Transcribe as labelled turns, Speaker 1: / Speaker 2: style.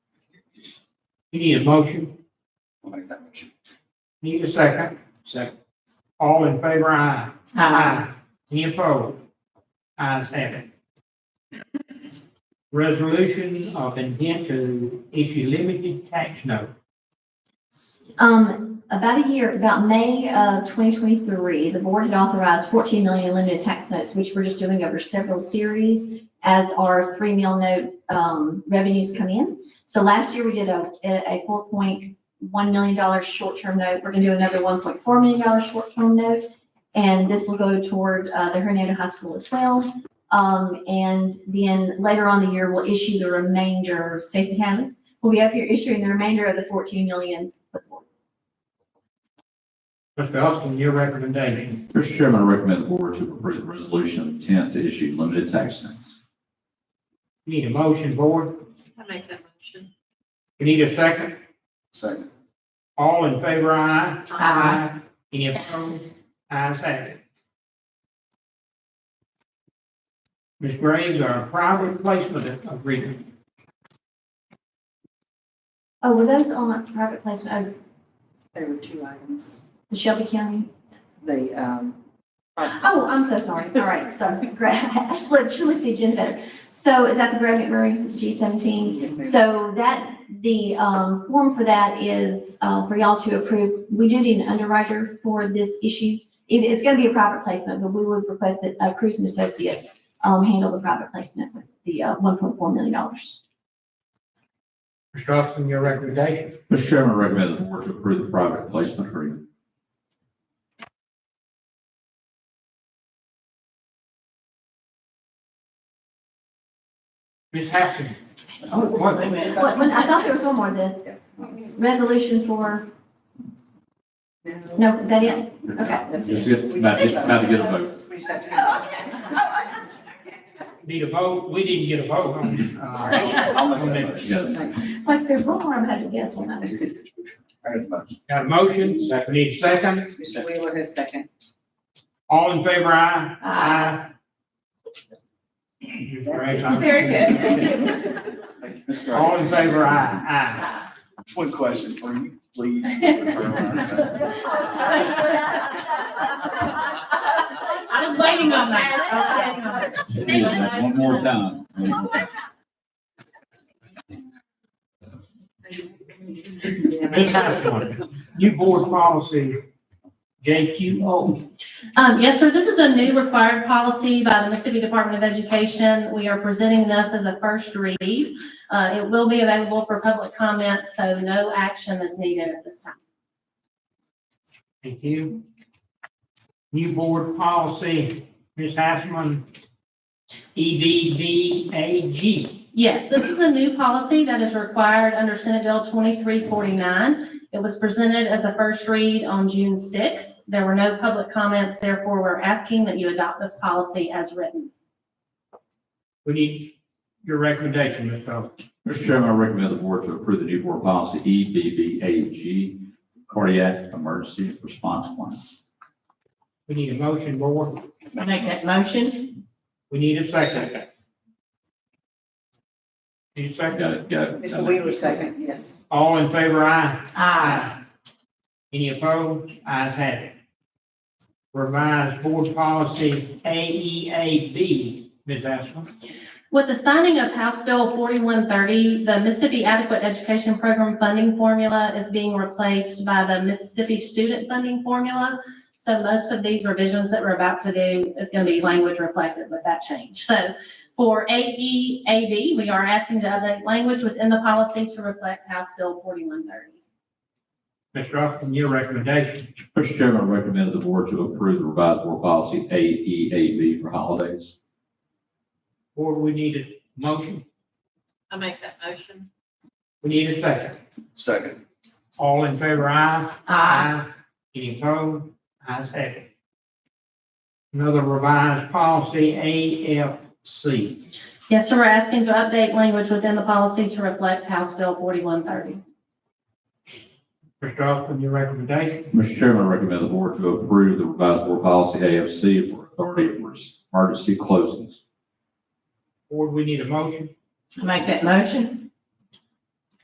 Speaker 1: Need a motion?
Speaker 2: I'll make that motion.
Speaker 1: Need a second? Second. All in favor, aye. Any opposed? Ayes have it. Resolution of intent to issue limited tax note.
Speaker 3: Um, about a year, about May of twenty twenty-three, the board had authorized fourteen million in limited tax notes, which we're just doing over several series as our three mil note, um, revenues come in. So last year we did a, a four point one million dollar short-term note. We're gonna do another one point four million dollar short-term note. And this will go toward, uh, the Hernando High School as well. Um, and then later on in the year, we'll issue the remainder. Stacy Hammond will be up here issuing the remainder of the fourteen million for the board.
Speaker 1: Mr. Austin, your recommendation.
Speaker 2: Mr. Chairman, I recommend the board to approve the resolution of intent to issue limited tax notes.
Speaker 1: Need a motion, board?
Speaker 4: I make that motion.
Speaker 1: Need a second?
Speaker 2: Second.
Speaker 1: All in favor, aye.
Speaker 3: Aye.
Speaker 1: Any opposed? Ayes have it. Ms. Graves, our private placement agreement.
Speaker 3: Oh, were those on private placement, oh,
Speaker 5: There were two items.
Speaker 3: the Shelby County?
Speaker 5: The, um,
Speaker 3: Oh, I'm so sorry. All right, so, Greg, look, you look the agenda better. So is that the Greg McMurray G seventeen?
Speaker 5: yes, ma'am.
Speaker 3: So that, the, um, form for that is, uh, for y'all to approve. We do need an underwriter for this issue. It, it's gonna be a private placement, but we would request that, uh, Cruz and Associates, um, handle the private placement, with the, uh, one point four million dollars.
Speaker 1: Mr. Austin, your recommendation.
Speaker 2: Mr. Chairman, I recommend the board to approve the private placement agreement.
Speaker 1: Ms. Haskins. Oh, what-
Speaker 3: What, when, I thought there was one more, the resolution for, no, is that it? Okay.
Speaker 5: That's
Speaker 2: Just
Speaker 5: it.
Speaker 2: get, about just about to get a vote.
Speaker 5: We just have to-
Speaker 1: Need a vote? We didn't get a vote on, uh,
Speaker 2: I'll make that motion.
Speaker 3: It's like there's one more I'm having to guess on that.
Speaker 1: got a motion, need a second.
Speaker 5: Mr. Wheeler has second.
Speaker 1: All in favor, aye.
Speaker 3: Aye.
Speaker 1: Ms. Graves, I'm-
Speaker 5: Very good.
Speaker 1: All in favor, aye, aye.
Speaker 6: One question for you, please. Mr.
Speaker 4: I was waiting on that. I was waiting on that.
Speaker 2: One more time. One more time.
Speaker 1: Ms. Haskins, new board policy, JQO.
Speaker 7: Um, yes, sir. This is a new required policy by the Mississippi Department of Education. We are presenting this as a first read. Uh, it will be available for public comment, so no action is needed at this time.
Speaker 1: Thank you. New board policy, E Ms. Hassman, EDBAG.
Speaker 7: Yes, this is a new policy that is required under Senate Bill 2349. It was presented as a first read on June 6th. There were no public comments, therefore we're asking that you adopt this policy as written.
Speaker 1: We need your recommendation, Ms. Bowles.
Speaker 2: Mr. Chairman, I recommend the board to approve the new board policy E EBBAG, cardiac emergency response plan.
Speaker 1: We need a motion, board.
Speaker 5: I make that motion?
Speaker 1: We need a second. Need a
Speaker 2: Got
Speaker 1: second?
Speaker 2: it, got it.
Speaker 5: Mr. Wheeler second, yes.
Speaker 1: All in favor, aye? Aye. Any opposed? Ayes have it. Revised board policy AEAB, Ms. Hassman.
Speaker 7: With the signing of House Bill 4130, the Mississippi Adequate Education Program funding formula is being replaced by the Mississippi Student Funding Formula. So most of these revisions that we're about to do is going to be language reflective with that change. So for AEAB, we are asking to update language within the policy to reflect House Bill 4130.
Speaker 1: Mr. Austin, your recommendation.
Speaker 2: Mr. Chairman, I recommend the board to approve the revised board policy AEAB for holidays.
Speaker 1: Board, we need a motion.
Speaker 4: I make that motion.
Speaker 1: We need a second.
Speaker 6: Second.
Speaker 1: All in favor, aye? Any opposed? Ayes have it. Another revised policy, AFC.
Speaker 7: Yes, sir, we're asking to update language within the policy to reflect House Bill 4130.
Speaker 1: Mr. Austin, your recommendation.
Speaker 2: Mr. Chairman, I recommend the board to approve the revised board policy AFC for authority for emergency closings.
Speaker 1: Board, we need a motion.
Speaker 5: I make that motion?